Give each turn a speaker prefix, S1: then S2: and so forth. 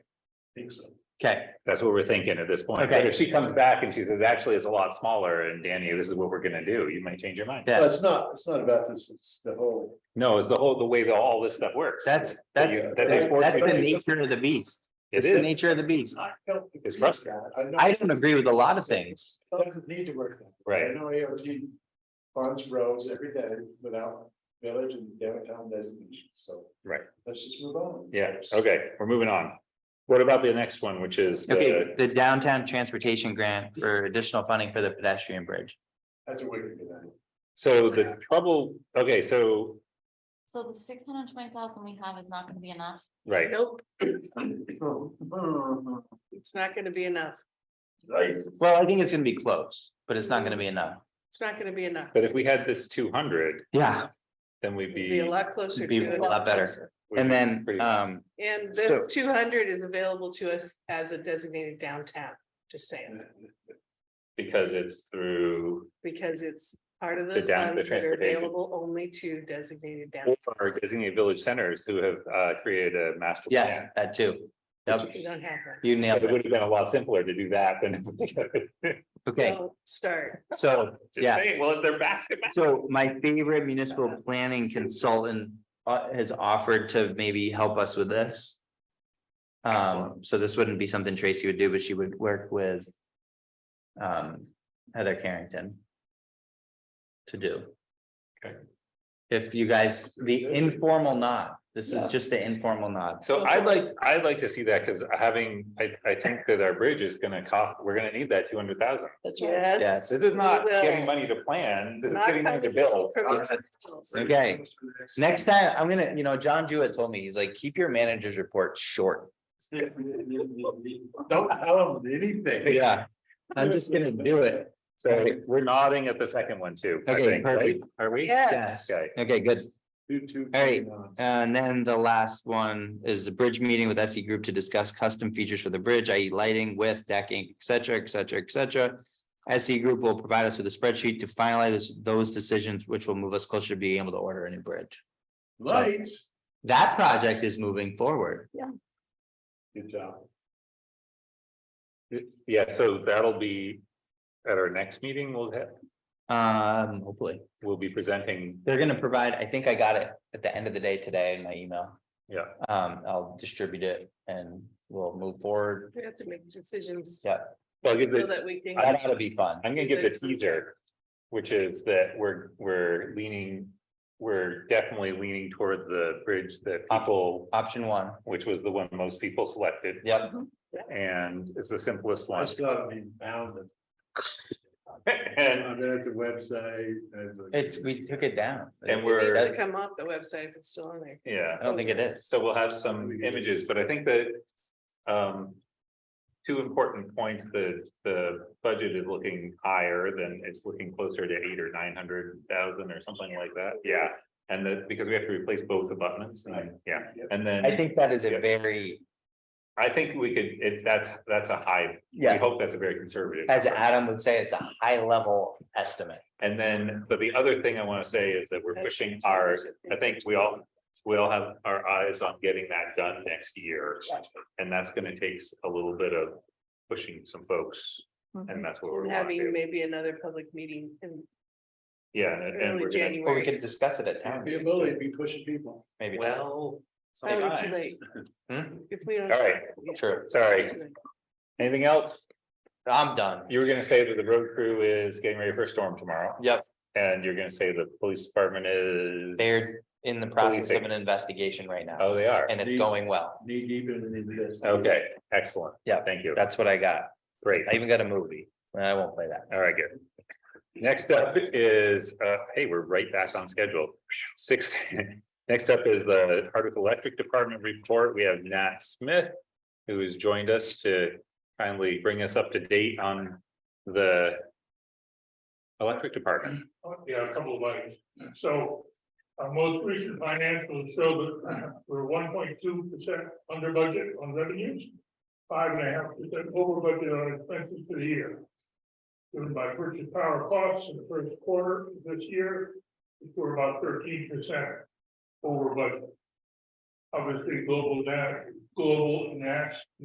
S1: think so.
S2: Okay,
S3: That's what we're thinking at this point.
S2: Okay.
S3: But if she comes back and she says, actually, it's a lot smaller and Danny, this is what we're gonna do, you might change your mind.
S2: Yeah.
S1: But it's not, it's not about this, it's the whole.
S3: No, it's the whole, the way that all this stuff works.
S2: that's,
S3: That
S2: that's,
S3: you- that they force
S2: that's the
S3: you to-
S2: nature of the beast.
S3: It
S2: It's the
S3: is,
S2: nature of the beast.
S1: I don't agree
S3: It's
S1: with
S3: frustrating.
S1: that. know
S2: I don't agree with a lot of things.
S1: It Doesn't need to work. that way. I
S3: right,
S1: know AOT funds roads every day without village and downtown designation, so.
S3: Right.
S1: Let's just move on.
S3: yeah, okay, we're moving on. What about the next one, which is
S2: Okay,
S3: the,
S2: the downtown transportation grant for additional funding for the pedestrian bridge.
S1: That's a way to do that.
S3: so the trouble, okay, so,
S4: So the six hundred and twenty thousand we have is not gonna be enough.
S3: right,
S5: Nope,
S1: Oh,
S5: it's not gonna be enough.
S1: nice.
S2: Well, I think it's gonna be close, but it's not gonna be enough.
S5: It's not gonna be enough.
S3: but if we had this two hundred,
S2: Yeah.
S3: then we'd
S5: It'd Be
S3: be.
S5: a lot closer
S2: be
S5: to. it.
S2: a lot better.
S3: we'd
S2: And
S3: be
S2: then,
S3: pretty-
S2: um,
S5: And
S2: So-
S5: the two hundred is available to us as a designated downtown, just saying,
S3: Because it's through,
S5: because it's part of
S3: The
S5: those
S3: down- the
S5: funds that are
S3: transportation.
S5: available only to designated downtown.
S3: or designated village centers who have uh created a master.
S2: yes,
S3: plan.
S2: that too. Yep,
S5: We don't have that.
S2: you nailed
S3: It
S2: it.
S3: would have been a lot simpler to do that than.
S2: Okay,
S5: Don't Start.
S2: so,
S3: Just
S2: yeah.
S3: saying, Well, if they're back to back.
S2: So my favorite municipal planning consultant uh, has offered to maybe help us with this. Um,
S3: Excellent.
S2: so this wouldn't be something Tracy would do, but she would work with. Um, Heather Carrington. To do.
S3: Okay.
S2: If you guys, the informal nod, this is just the informal nod.
S3: So I'd like, I'd like to see that, because having, I, I think that our bridge is gonna cost, we're gonna need that two hundred thousand.
S5: That's
S4: right.
S2: Yes.
S5: Yes.
S3: This is not
S5: Well-
S3: getting money to plan, this is
S5: Not
S3: getting money to
S5: coming
S3: build.
S5: from the councils.
S2: Okay. Next time, I'm gonna, you know, John Jewett told me, he's like, keep your manager's report short.
S1: Don't tell them anything.
S2: Yeah. I'm just gonna do it.
S3: So we're nodding at the second one too. I
S2: Okay,
S3: think, right?
S2: perfect.
S3: Are we?
S5: Yes.
S3: Okay,
S2: Okay, good.
S1: Do two.
S2: All right.
S1: nods.
S2: And then the last one is the bridge meeting with SE Group to discuss custom features for the bridge, i.e. lighting, width, decking, et cetera, et cetera, et cetera. SE Group will provide us with a spreadsheet to finalize those decisions, which will move us closer to being able to order a new bridge.
S1: Lights.
S2: That project is moving forward.
S1: Good job.
S3: yeah, so that'll be at our next meeting, we'll have,
S2: Um, hopefully,
S3: we'll be presenting,
S2: they're gonna provide, I think I got it at the end of the day today in my email.
S3: yeah.
S2: Um, I'll distribute it and we'll move forward.
S5: We have to make decisions
S3: Well, because
S5: so
S3: it,
S5: that we can.
S2: That ought to be fun.
S3: I'm gonna give the teaser, which is that we're, we're leaning, we're definitely leaning toward the bridge that people,
S2: Option one.
S3: which was the one most people selected.
S2: Yep,
S3: And it's the simplest
S1: I
S3: one.
S1: still haven't been bound.
S3: And,
S1: I've been at the website. I've looked-
S2: it's, we took it down.
S3: and
S5: It needs to
S3: we're,
S5: come off the website if it's still on there.
S3: yeah,
S2: I don't think it is.
S3: so we'll have some images, but I think that, um. Two important points, the, the budget is looking higher than, it's looking closer to eight or nine hundred thousand or something like that, yeah. And that, because we have to replace both abutments, and, yeah, and then.
S2: I think that is a very,
S3: I think we could, if that's, that's a high, we
S2: yeah,
S3: hope that's a very conservative.
S2: as
S3: number.
S2: Adam would say, it's a high level estimate.
S3: And then, but the other thing I want to say is that we're pushing our, I think we all, we all have our eyes on getting that done next year. And that's going to take s- a little bit of pushing some folks and that's what we're want to
S5: Having
S3: do.
S5: maybe another public meeting in
S3: Yeah, and- and we're
S5: early
S3: gonna,
S2: Or we
S5: January.
S2: could discuss it at
S1: Can't
S2: town,
S1: Be a bully, be pushing people.
S2: maybe.
S3: well.
S5: Probably too
S3: sometimes.
S5: late.
S2: Hmm?
S5: If we don't.
S3: All right,
S5: Yeah.
S2: True,
S3: Sorry,
S5: Too late.
S3: anything else?
S2: I'm done.
S3: You were gonna say that the road crew is getting ready for a storm tomorrow.
S2: Yep.
S3: And you're gonna say the police department is,
S2: They're in the process of
S3: Policing.
S2: an investigation right now
S3: oh, they are.
S2: and it's going well.
S1: Knee deep into this.
S3: Okay, excellent.
S2: Yeah.
S3: Thank you.
S2: That's what I got.
S3: Great.
S2: I even got a movie. I won't play that.
S3: All right, good. Next up is, uh, hey, we're right back on schedule. Six. Next up is the Hardwick Electric Department report. We have Nat Smith. Who has joined us to kindly bring us up to date on the. Electric Department.
S6: Yeah, a couple of items. So our most recent financials show that we're one point two percent under budget on revenues. Five and a half percent over budget on expenses for the year. Driven by purchase power costs in the first quarter of this year, which were about thirteen percent over budget. Obviously, global, na- global and national